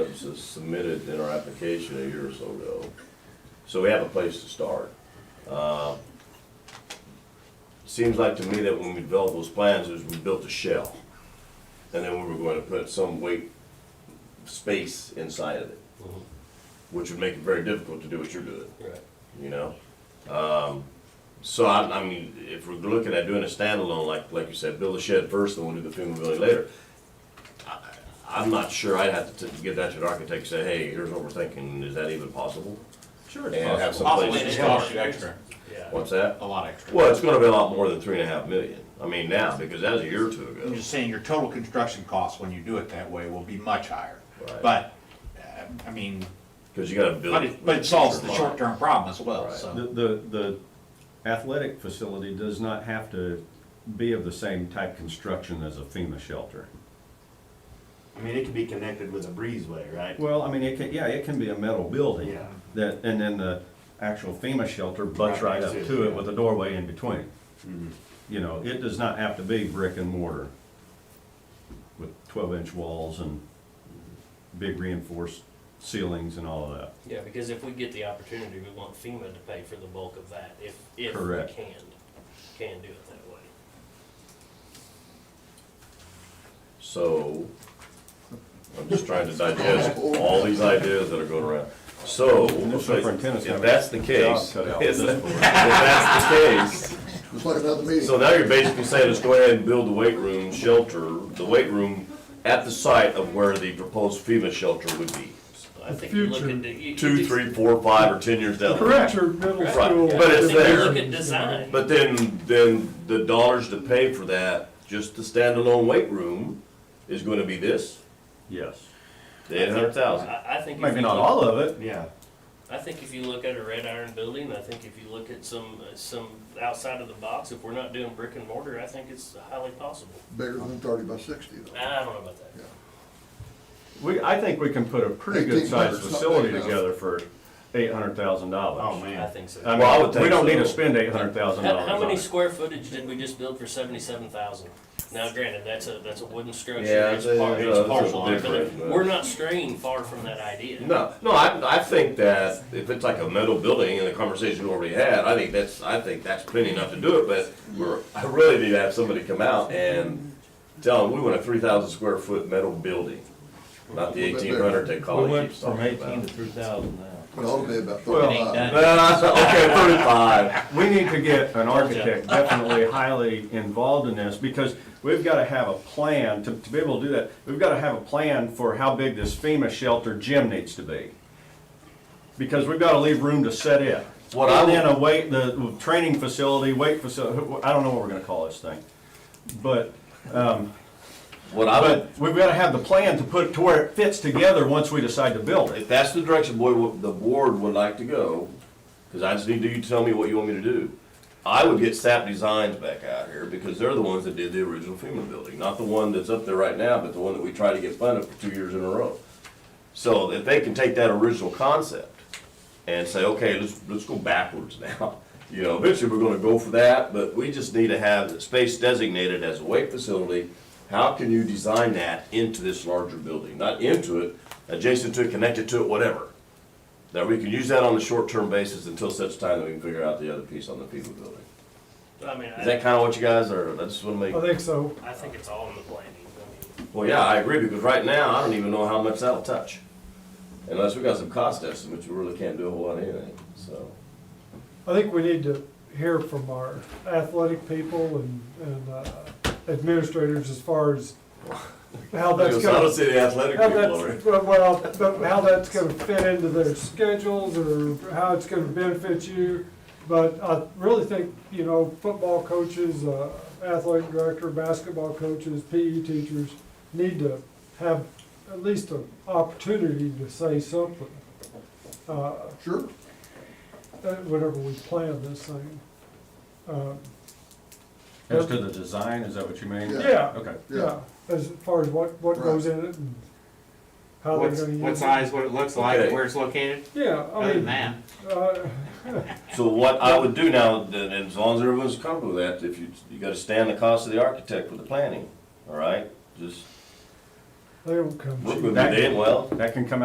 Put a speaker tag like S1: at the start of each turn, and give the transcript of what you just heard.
S1: s- submitted in our application a year or so ago. So we have a place to start. Uh, Seems like to me that when we developed those plans, is we built a shell. And then we were going to put some weight, space inside of it, which would make it very difficult to do what you're doing
S2: Right.
S1: you know? Um, so I, I mean, if we're looking at doing a standalone, like, like you said, build a shed first, then we'll do the FEMA building later. I, I'm not sure, I'd have to t- give that to the architect and say, hey, here's what we're thinking, is that even possible?
S3: Sure,
S1: And have some
S3: Possibly
S1: place
S3: it
S1: to
S3: costs
S1: start.
S3: you extra,
S1: What's that?
S3: a lot extra.
S1: Well, it's gonna be a lot more than three and a half million, I mean, now, because that was a year or two
S3: I'm
S1: ago.
S3: just saying, your total construction cost when you do it that way will be much higher.
S1: Right.
S3: But, uh, I mean,
S1: Cause you gotta build.
S3: but it, but it solves the short-term problem as well,
S1: Right.
S3: so.
S4: The, the, the athletic facility does not have to be of the same type construction as a FEMA shelter.
S5: I mean, it could be connected with a breezeway, right?
S4: Well, I mean, it can, yeah, it can be a metal building.
S5: Yeah.
S4: That, and then the actual FEMA shelter butts
S5: Right
S4: right up
S5: next to it,
S4: to it
S5: yeah. Mm-hmm.
S4: with a doorway in between. You know, it does not have to be brick and mortar with twelve inch walls and big reinforced ceilings and all of that.
S2: Yeah, because if we get the opportunity, we want FEMA to pay for the bulk of that, if, if we
S4: Correct.
S2: can, can do it that way.
S1: So, I'm just trying to digest all these ideas that are going around. So,
S4: And the superintendent's
S1: if
S4: gonna
S1: that's the
S4: get
S1: case,
S4: the job cut out
S1: if
S4: at this point.
S1: that's the
S6: What about the
S1: case, so
S6: meeting?
S1: now you're basically saying, let's go ahead and build the weight room shelter, the weight room at the site of where the proposed FEMA shelter would be.
S2: So I think you look
S7: future,
S2: at the. you- you
S1: Two,
S2: just-
S1: three, four, five, or ten years down the road.
S7: Future middle
S1: Right.
S7: school.
S1: But
S2: I
S1: it's
S2: think you
S1: there.
S2: look at design.
S1: But then, then the dollars to pay for that, just the standalone weight room, is gonna be this,
S4: Yes.
S1: eight hundred thousand.
S2: I, I think. if
S4: Maybe
S2: you
S4: not
S2: look-
S4: all of it,
S5: Yeah.
S2: I think if you look at a red iron building, I think if you look at some, uh, some outside of the box, if we're not doing brick and mortar, I think it's highly possible.
S6: Bigger than thirty by sixty though.
S2: I don't know about that.
S4: We, I think we can put a pretty good sized
S6: 1,800 's not
S4: facility
S6: big enough.
S4: together for eight hundred thousand
S5: Oh,
S4: dollars.
S2: I
S5: man.
S2: think so.
S4: I
S1: Well, I would
S4: mean, we
S1: think
S4: don't need to
S1: so.
S4: spend eight hundred thousand
S2: How,
S4: dollars
S2: how
S4: on
S2: many
S4: it.
S2: square footage did we just build for seventy-seven thousand? Now granted, that's a, that's a wooden structure,
S1: Yeah,
S2: it's
S1: it's a-
S2: part,
S1: it's a-
S2: it's
S1: it's a
S2: partial,
S1: different,
S2: but
S1: but-
S2: we're not straying far from that idea.
S1: No, no, I, I think that if it's like a metal building and the conversation we already had, I think that's, I think that's plenty enough to do it, but we're, I really need to have somebody come out and tell them, we want a three thousand square foot metal building, not the eighteen hundred that Colin keeps talking about.
S8: three thousand now.
S6: It ought to be about
S4: Well,
S6: thirty-five.
S1: Uh, okay, thirty-five,
S4: We need to get an architect definitely highly involved in this, because we've gotta have a plan, to, to be able to do that, we've gotta have a plan for how big this FEMA shelter gym needs to be. Because we've gotta leave room to set it.
S1: What I
S4: And then
S1: would-
S4: a weight, the training facility, weight facility, I don't know what we're gonna call this thing. But um,
S1: what I would,
S4: But we've got to have the plan to put, to where it fits together once we decide to build it.
S1: if that's the direction boy, what the board would like to go, because I just need you to tell me what you want me to do. I would get SAP Designs back out here because they're the ones that did the original FEMA building, not the one that's up there right now, but the one that we tried to get funded for two years in a row. So if they can take that original concept and say, okay, let's, let's go backwards now. You know, eventually we're gonna go for that, but we just need to have the space designated as a weight facility. How can you design that into this larger building? Not into it, adjacent to it, connected to it, whatever. That we can use that on a short-term basis until such time that we can figure out the other piece on the FEMA building.
S2: I mean,
S1: Is that
S2: I,
S1: kinda what you guys are, I just wanna
S7: I
S1: make,
S7: think so.
S2: I think it's all in the planning. I mean,
S1: well, yeah, I agree, because right now, I don't even know how much that'll touch. Unless we got some cost estimates, we really can't do a whole lot of anything, so.
S7: I think we need to hear from our athletic people and, and uh, administrators as far as how Oh, that's
S1: Because I don't
S7: gonna,
S1: see the athletic
S7: how
S1: people over
S7: that's, well, but how that's gonna fit into their schedules or how it's gonna benefit you. But I really think, you know, football coaches, uh, athletic director, basketball coaches, PE teachers need to have at least an opportunity to say something. Uh,
S6: Sure.
S7: uh, whenever we plan this thing. Um,
S4: As to the design, is that what you mean?
S6: Yeah.
S7: Yeah,
S4: Okay.
S7: yeah, as far as what, what goes in it and how they're
S9: What's,
S7: gonna
S9: what
S7: use it.
S9: size, what it looks like,
S1: Okay.
S9: and where it's located,
S7: Yeah, I
S9: other than
S7: mean,
S9: that.
S7: uh,
S1: it. So what I would do now, then, and as long as everyone's comfortable with that, if you, you gotta stand the cost of the architect with the planning, all right? Just
S7: they don't come
S1: work
S7: cheap.
S1: with me then, well.
S4: That can come